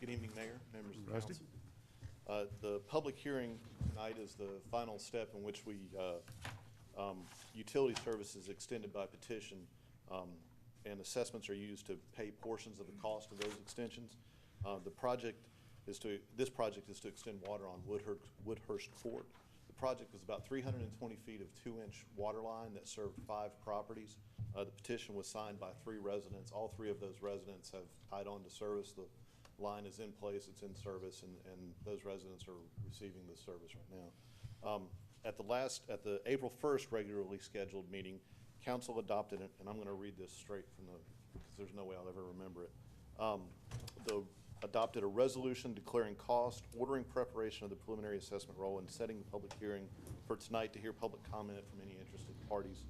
Good evening, Mayor, members of the Rusty. council. Uh, The public hearing tonight is the final step in which we, uh, um, utility services extended by petition, um, and assessments are used to pay portions of the cost of those extensions. Uh, The project is to, this project is to extend water on Woodhurst, Woodhurst Court. The project is about three hundred and twenty feet of two-inch water line that served five properties. Uh, The petition was signed by three residents. All three of those residents have tied on to service. The line is in place, it's in service, and, and those residents are receiving the service right now. Um, At the last, at the April first regularly scheduled meeting, council adopted it, and I'm gonna read this straight from the, because there's no way I'll ever remember it. Um, The, adopted a resolution declaring cost, ordering preparation of the preliminary assessment roll, and setting the public hearing for tonight to hear public comment from any interested parties.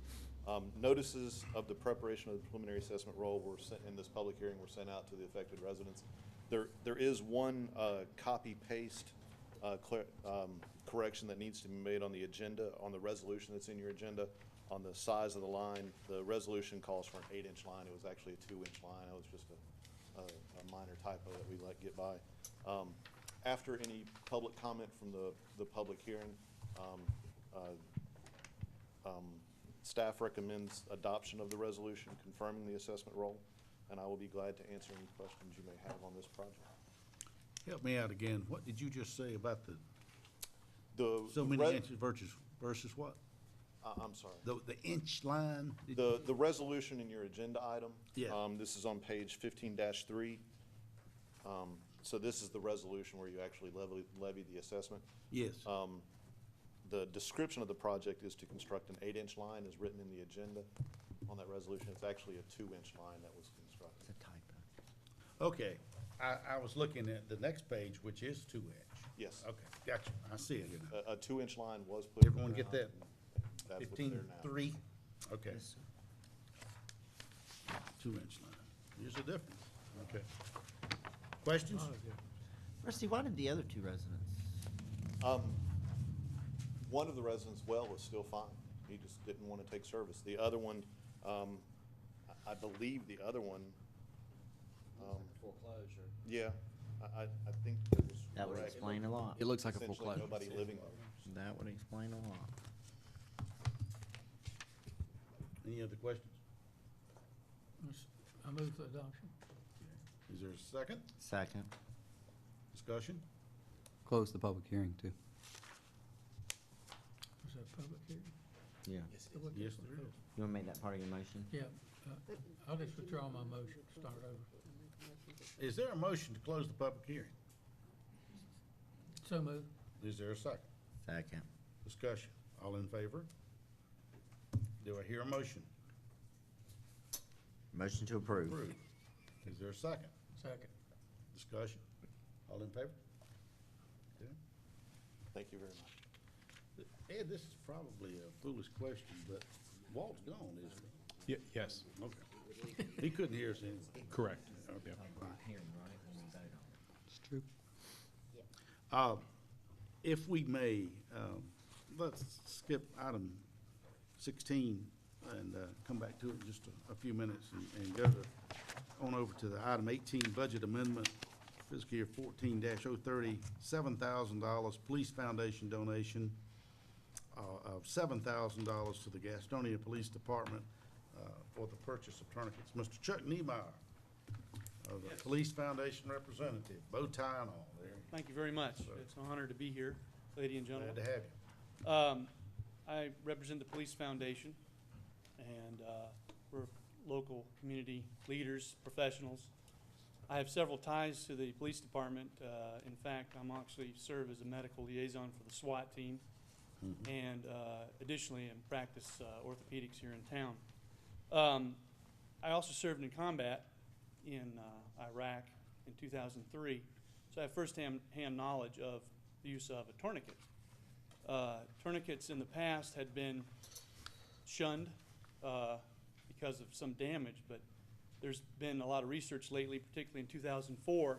Um, Notices of the preparation of the preliminary assessment roll were sent, in this public hearing were sent out to the affected residents. There, there is one uh, copy-paste uh, cler- um, correction that needs to be made on the agenda, on the resolution that's in your agenda, on the size of the line. The resolution calls for an eight-inch line. It was actually a two-inch line. It was just a, a a minor typo that we let get by. Um, After any public comment from the, the public hearing, um, uh, um, Staff recommends adoption of the resolution confirming the assessment role, and I will be glad to answer any questions you may have on this project. Help me out again. What did you just say about the, The- so the many re- inches versus, versus what? I- I'm sorry. The, the inch line? Did- The, the resolution in your agenda item. Yeah. um, This is on page fifteen three. Um, So this is the resolution where you actually levy, levy the assessment. Yes. Um, The description of the project is to construct an eight-inch line as written in the agenda on that resolution. It's actually a two-inch line that was constructed. Okay. I, I was looking at the next page, which is two inch. Yes. Okay, gotcha. I see it now. A, a two-inch line was put. in the Everyone get ground, and That's what's Fifteen, there now. three. Okay. Two inch line. Here's the difference. Okay. Questions? Rusty, why did the other two residents? Um, one of the residents' well was still fine. He just didn't want to take service. The other one, um, I, I believe the other one, um, Foreclosure. yeah, I, I, I think that was. That would correct. explain a lot. It looks like a Essentially, foreclosure. nobody living there. That would explain a lot. Any other questions? I move to adoption. Is there a second Second. discussion? Close the public hearing, too. Was that public hearing? Yeah. Public Yes, hearing. there is. You want to make that part of your motion? Yeah, uh, I'll just withdraw my motion, start over. Is there a motion to close the public hearing? So move. Is there a second? Second. Discussion. All in favor? Do I hear a motion? Motion to approve. Approved. Is there a second? Second. Discussion. All in favor? Okay. Thank you very much. Ed, this is probably a foolish question, but Walt's gone, isn't he? Ye- Yes, Okay. He couldn't hear us anyway. correct. Oh, Yeah. It's true. Uh, If we may, um, let's skip item sixteen and uh, come back to it in just a- a few minutes and- and go to, on over to the item eighteen, budget amendment, fiscal year fourteen 30 seven thousand dollars, police foundation donation uh, of seven thousand dollars to the Gastonia Police Department uh, for the purchase of tourniquets. Mr. Chuck Niemeyer, uh, the Police Foundation representative, bow tie and all there. Thank you very much. It's an honor to be here, ladies and Glad gentlemen. to have you. Um, I represent the Police Foundation, and, uh, we're local community leaders, professionals. I have several ties to the police department. Uh, in fact, I'm actually serve as a medical liaison for the SWAT team. And, uh, additionally, in practice uh, orthopedics here in town. Um, I also served in combat in, uh, Iraq in two thousand and three. So I have firsthand, hand knowledge of the use of a tourniquet uh, tourniquets in the past had been shunned uh, because of some damage, but there's been a lot of research lately, particularly in 2004.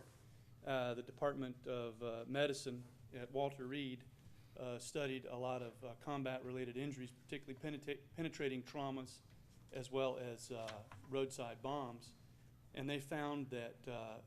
Uh, the Department of uh, Medicine at Walter Reed uh, studied a lot of uh, combat related injuries, particularly penetra- penetrating traumas as well as uh, roadside bombs. And they found that uh,